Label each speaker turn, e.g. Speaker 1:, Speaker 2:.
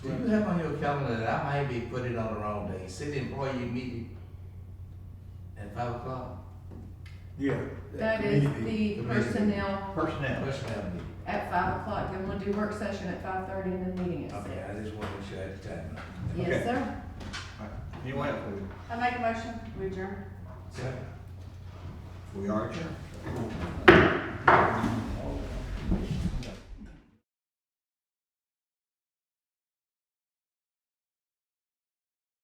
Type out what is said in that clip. Speaker 1: Do you have on your calendar that I might be putting on the wrong day, city employee meeting at five o'clock?
Speaker 2: Yeah.
Speaker 3: That is
Speaker 1: Committee,
Speaker 3: the
Speaker 1: committee.
Speaker 3: personnel
Speaker 4: Personnel.
Speaker 1: Personnel meeting.
Speaker 3: at five o'clock, then we'll do work session at five thirty and then meeting at
Speaker 1: Okay,
Speaker 3: six.
Speaker 1: I just want to make sure I have the time.
Speaker 3: Yes, sir.
Speaker 4: Anyone else?
Speaker 3: I make a motion, we adjourn.
Speaker 1: Second.
Speaker 4: We are adjourned.